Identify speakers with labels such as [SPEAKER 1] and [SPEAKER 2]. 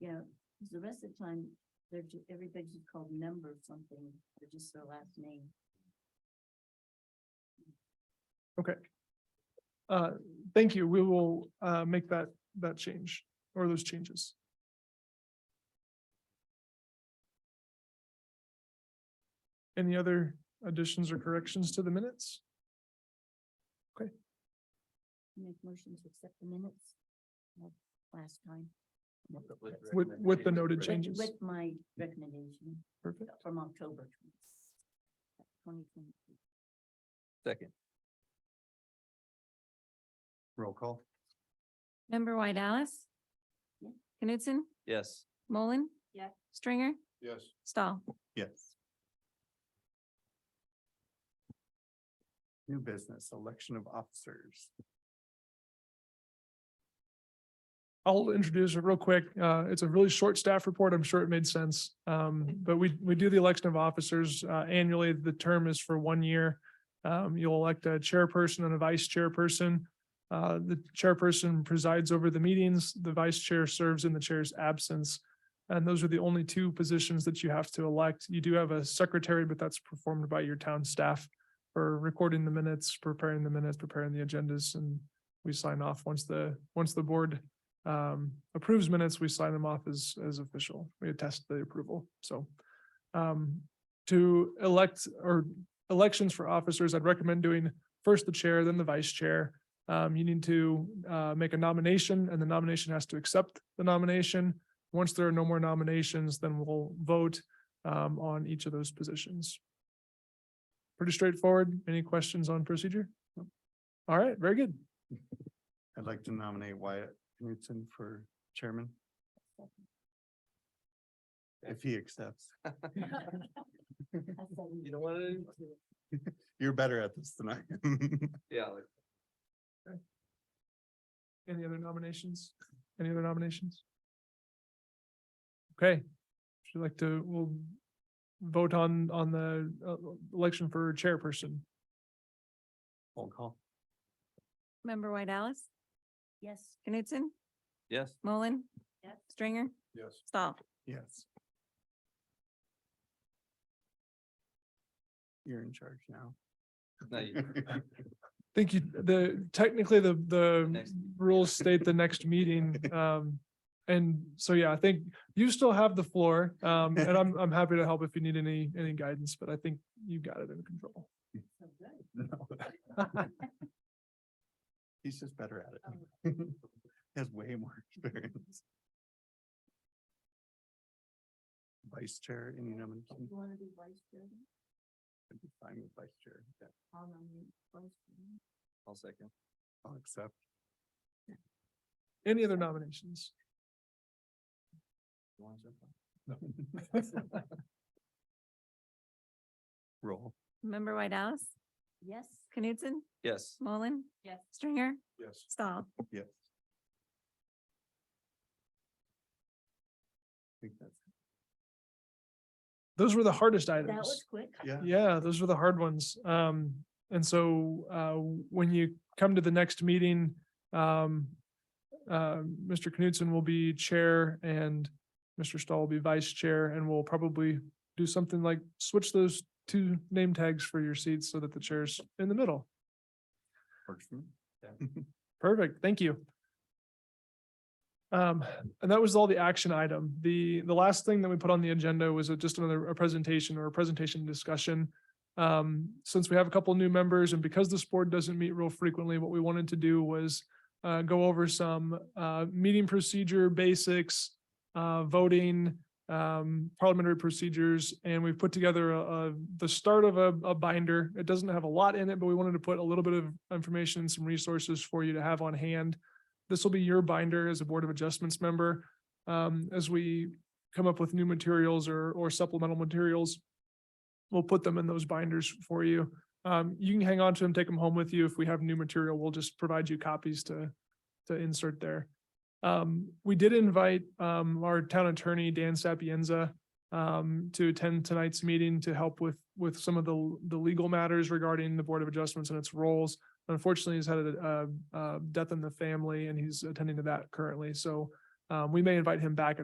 [SPEAKER 1] Yeah, 'cause the rest of the time, they're just, everybody's just called number something, or just their last name.
[SPEAKER 2] Okay. Uh, thank you. We will, uh, make that, that change or those changes. Any other additions or corrections to the minutes?
[SPEAKER 1] Make motion to accept the minutes of last time.
[SPEAKER 2] With, with the noted
[SPEAKER 1] With-
[SPEAKER 2] changes.
[SPEAKER 1] With my recommendation
[SPEAKER 2] Perfect.
[SPEAKER 1] from October twenty twenty.
[SPEAKER 3] Second. Roll call.
[SPEAKER 4] Member White Alice?
[SPEAKER 1] Yeah.
[SPEAKER 4] Knutson?
[SPEAKER 3] Yes.
[SPEAKER 4] Mullen?
[SPEAKER 1] Yeah.
[SPEAKER 4] Stringer?
[SPEAKER 3] Yes.
[SPEAKER 4] Stahl?
[SPEAKER 3] Yes. New business, election of officers.
[SPEAKER 2] I'll introduce it real quick. Uh, it's a really short staff report. I'm sure it made sense. Um, but we, we do the election of officers, uh, annually. The term is for one year. Um, you'll elect a chairperson and a vice chairperson. Uh, the chairperson presides over the meetings. The vice chair serves in the chair's absence. And those are the only two positions that you have to elect. You do have a secretary, but that's performed by your town staff for recording the minutes, preparing the minutes, preparing the agendas, and we sign off once the, once the board um, approves minutes, we sign them off as, as official. We attest the approval, so. Um, to elect or elections for officers, I'd recommend doing first the chair, then the vice chair. Um, you need to, uh, make a nomination and the nomination has to accept the nomination. Once there are no more nominations, then we'll vote, um, on each of those positions. Pretty straightforward. Any questions on procedure? All right, very good.
[SPEAKER 3] I'd like to nominate Wyatt Knutson for chairman. If he accepts.
[SPEAKER 1] You
[SPEAKER 5] don't want to.
[SPEAKER 3] You're better at this than I.
[SPEAKER 5] Yeah.
[SPEAKER 2] Any other nominations? Any other nominations? Okay, would you like to, we'll vote on, on the uh, election for chairperson.
[SPEAKER 3] Roll call.
[SPEAKER 4] Member White Alice?
[SPEAKER 1] Yes,
[SPEAKER 4] Knutson?
[SPEAKER 5] Yes.
[SPEAKER 4] Mullen?
[SPEAKER 1] Yep.
[SPEAKER 4] Stringer?
[SPEAKER 3] Yes.
[SPEAKER 4] Stahl?
[SPEAKER 3] Yes. You're in charge now.
[SPEAKER 5] No, you-
[SPEAKER 2] I Think you, the, technically, the, the
[SPEAKER 5] Next.
[SPEAKER 2] rules state the next meeting. Um, and so, yeah, I think you still have the floor. Um, and I'm, I'm happy to help if you need any, any guidance, but I think you got it under control.
[SPEAKER 1] so good.
[SPEAKER 3] He's just better at it. Has way more experience. Vice chair, any nomination?
[SPEAKER 1] You wanna be vice chairman?
[SPEAKER 3] I'd be fine with vice chair. Yeah,
[SPEAKER 1] I'll nominate vice chairman.
[SPEAKER 5] I'll second.
[SPEAKER 3] I'll accept.
[SPEAKER 2] Any other nominations?
[SPEAKER 5] You wanna jump on?
[SPEAKER 3] Roll.
[SPEAKER 4] Member White Alice?
[SPEAKER 1] Yes.
[SPEAKER 4] Knutson?
[SPEAKER 5] Yes.
[SPEAKER 4] Mullen?
[SPEAKER 1] Yes.
[SPEAKER 4] Stringer?
[SPEAKER 3] Yes.
[SPEAKER 4] Stahl?
[SPEAKER 3] Yes. Think that's,
[SPEAKER 2] Those were the hardest items.
[SPEAKER 1] That was quick.
[SPEAKER 3] yeah.
[SPEAKER 2] Yeah, those were the hard ones. Um, and so, uh, when you come to the next meeting, um, uh, Mr. Knudsen will be chair and Mr. Stahl will be vice chair, and we'll probably do something like switch those two name tags for your seats so that the chair's in the middle.
[SPEAKER 3] Works for me.
[SPEAKER 2] Perfect, thank you. Um, and that was all the action item. The, the last thing that we put on the agenda was a- just another, a presentation or a presentation discussion. Um, since we have a couple new members and because this board doesn't meet real frequently, what we wanted to do was uh, go over some, uh, meeting procedure basics, uh, voting, um, parliamentary procedures, and we've put together a, a- the start of a, a binder. It doesn't have a lot in it, but we wanted to put a little bit of information, and some resources for you to have on hand. This will be your binder as a Board of Adjustments member. Um, as we come up with new materials or, or supplemental materials, we'll put them in those binders for you. Um, you can hang on to them, take them home with you. If we have new material, we'll just provide you copies to, to insert there. Um, we did invite, um, our town attorney, Dan Sapienza, um, to attend tonight's meeting to help with, with some of the, the legal matters regarding the Board of Adjustments and its roles. Unfortunately, he's had a, uh, uh, death in the family and he's attending to that currently. So, um, we may invite him back at